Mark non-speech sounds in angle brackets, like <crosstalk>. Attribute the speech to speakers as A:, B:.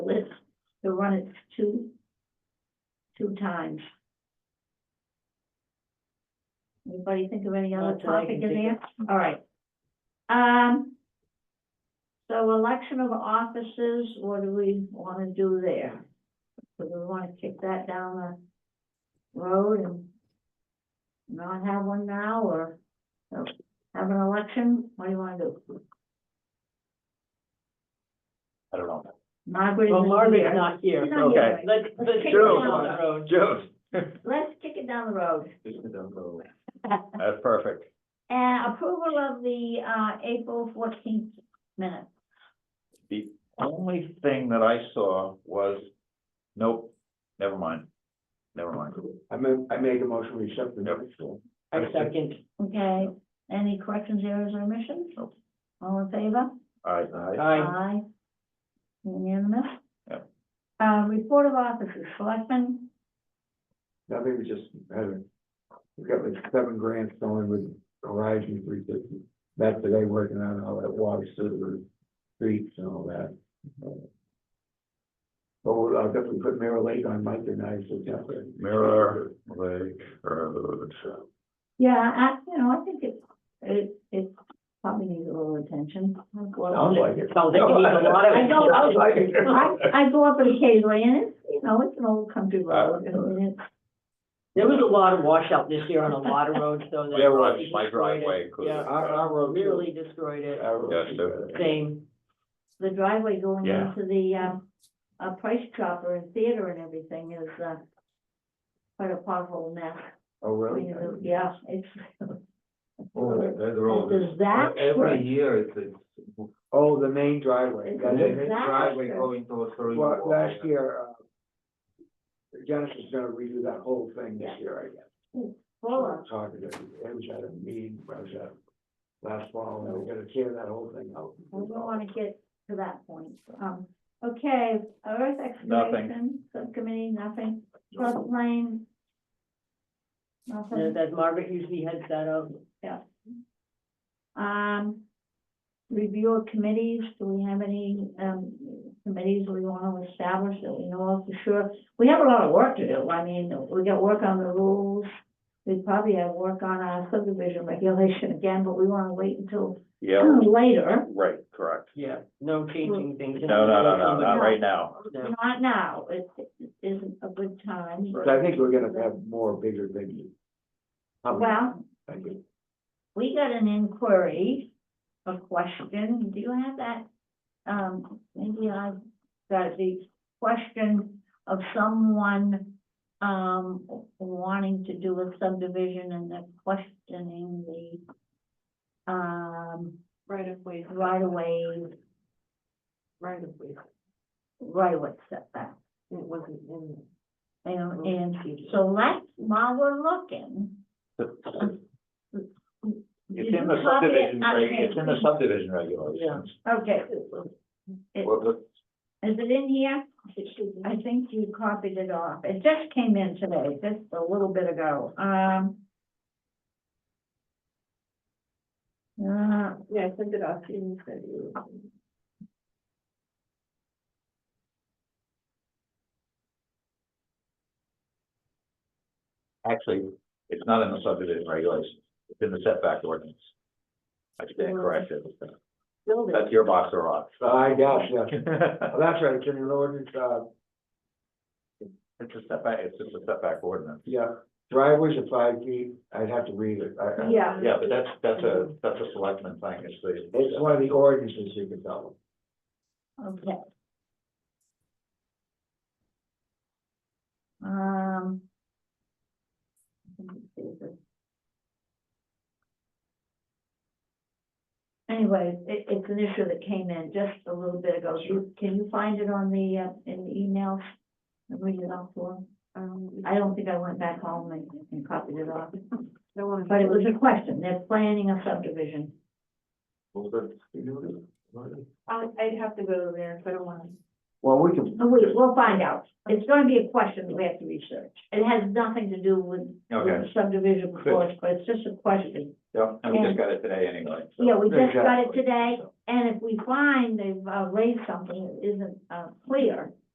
A: run it two, two times. Anybody think of any other
B: Not that I
A: topic in
B: can
A: there?
B: think
A: All right. Um, so election of officers, what do we wanna do there? Do we wanna kick that down the road and not have one now, or uh, have an election? What do you wanna do?
C: I don't know.
A: Margaret
B: Well,
A: is
B: Margaret's
A: here.
B: not here,
A: She's
B: so
A: not here,
C: Okay.
A: right?
B: let's, let's.
A: kick
B: go
A: it
B: down
A: down.
B: that road.
C: Joe.
A: Let's kick it down the road.
C: That's perfect.
A: And approval of the, uh, April fourteenth minute.
C: The only thing that I saw was, nope, never mind, never mind.
D: I mean, I make a motion, we accept the notice.
B: I second,
A: Okay, any corrections, errors, or omissions? All in favor?
C: I,
B: aye,
A: Aye. Unanimous?
C: Yep.
A: Uh, report of officers, selectmen,
D: Nothing, we just had, a- we got like seven grants going with Horizon three fifty. That's today working on all that water sewer streets and all that. But we'll- I'll definitely put Mirror Lake on Mike and I, so definitely.
C: Mirror Lake Road.
A: yeah, I, you know, I think it, it, it probably needs a little attention.
D: Sounds like it.
B: sounds like it needs a
D: <laughs>
B: lot of.
A: I don't-
D: Sounds like
A: I,
D: it.
A: I go up it occasionally, and it's, you know, it's an old country road, and it's
B: There was a lot of washout this year on a lot <laughs> of roads, so. that
C: Yeah, well,
B: probably
C: my
B: destroyed it.
C: driveway included. Uh,
B: Yeah,
D: Our, our road.
B: Really destroyed it,
D: Our road.
C: Yes, sir.
B: same,
A: the driveway going
C: Yeah.
A: into the, um, uh, Price Chopper and theater and everything is, uh, quite a pothole mess.
D: Oh, really?
A: Yeah, it's,
D: Oh, that-
A: it's a disaster.
E: Every year it's, it's
D: Oh, the main driveway.
A: It's
D: That's
A: a
D: it.
A: disaster.
E: driveway going towards the.
D: Well, last year, uh, Janice is gonna redo that whole thing this
A: Yeah.
D: year, I guess.
A: Full of-
D: Talking to, I was at a meeting, I was at last fall, and we're gonna tear that whole thing out.
A: We don't wanna get to that point. Um, okay, earth
C: Nothing.
A: excavation, subcommittee, nothing, floodplain. Nothing,
B: as Margaret usually heads that up.
A: um, review of committees, do we have any, um, committees we wanna establish that we know of for sure? We have a lot of work to do, I mean, we got work on the rules, we probably have work on our subdivision regulation again, but we wanna wait until
C: Yeah,
A: later.
C: right, correct.
B: Yeah, no changing things.
C: No, no, no, no, not right now.
B: No.
A: Not now, it it isn't a good time.
D: But I think we're gonna have more bigger Um, things.
A: Well,
D: Thank you.
A: we got an inquiry, a question, do you have that? Um, maybe I've got the question of someone, um, wanting to do a subdivision and they're questioning the, um,
B: Right of way.
A: right of way,
B: Right of way, it
A: right of way setback.
B: wasn't in.
A: And,
C: Mm-hmm.
A: and so that's while we're looking,
C: It's
A: Did
C: in
A: you
C: the
A: copy it?
C: subdivision,
A: I
C: reg-
A: can't
C: it's in the
A: see.
C: subdivision regulations.
A: okay. It-
C: What- what-
A: Is it in here? I think you copied it off. It just came in today, just a little bit ago. Um. uh,
B: Yeah, I sent it off to you, said you.
C: Actually, it's not in the subdivision regulations, it's in the setback ordinance. I stand corrected. That's your box or off.
D: So uh, I guess, yeah,
C: It's
D: Well, that's right, it's in the ordinance, uh,
C: a setback, it's just a setback ordinance.
D: yeah, driveways are five feet, I'd have to read it. I- I-
A: Yeah.
C: Yeah, but that's, that's a, that's a selectman thing, it's the.
D: It's one of the ordinances you can tell them.
A: Okay. Um. let me see this. Anyway, it, it's an issue that came in just a little bit ago. You- Can you find it on the, uh, in the emails? And read it off for them?
B: Um,
A: I don't think I went back home and, and copied it off,
B: don't want
A: but it was a question. They're planning a subdivision.
B: I, I'd have to go there, I don't want to.
D: Well, we can.
A: Oh, wait, we'll find out. It's gonna be a question that we have to research. It has nothing to do with with
C: Okay,
A: subdivision
C: Good.
A: reports, but it's just a question.
C: yeah, and we just got it today anyway. so-
A: Yeah, we just got it
D: Exactly.
A: today, and if we find they've uh, raised something that isn't, uh, clear,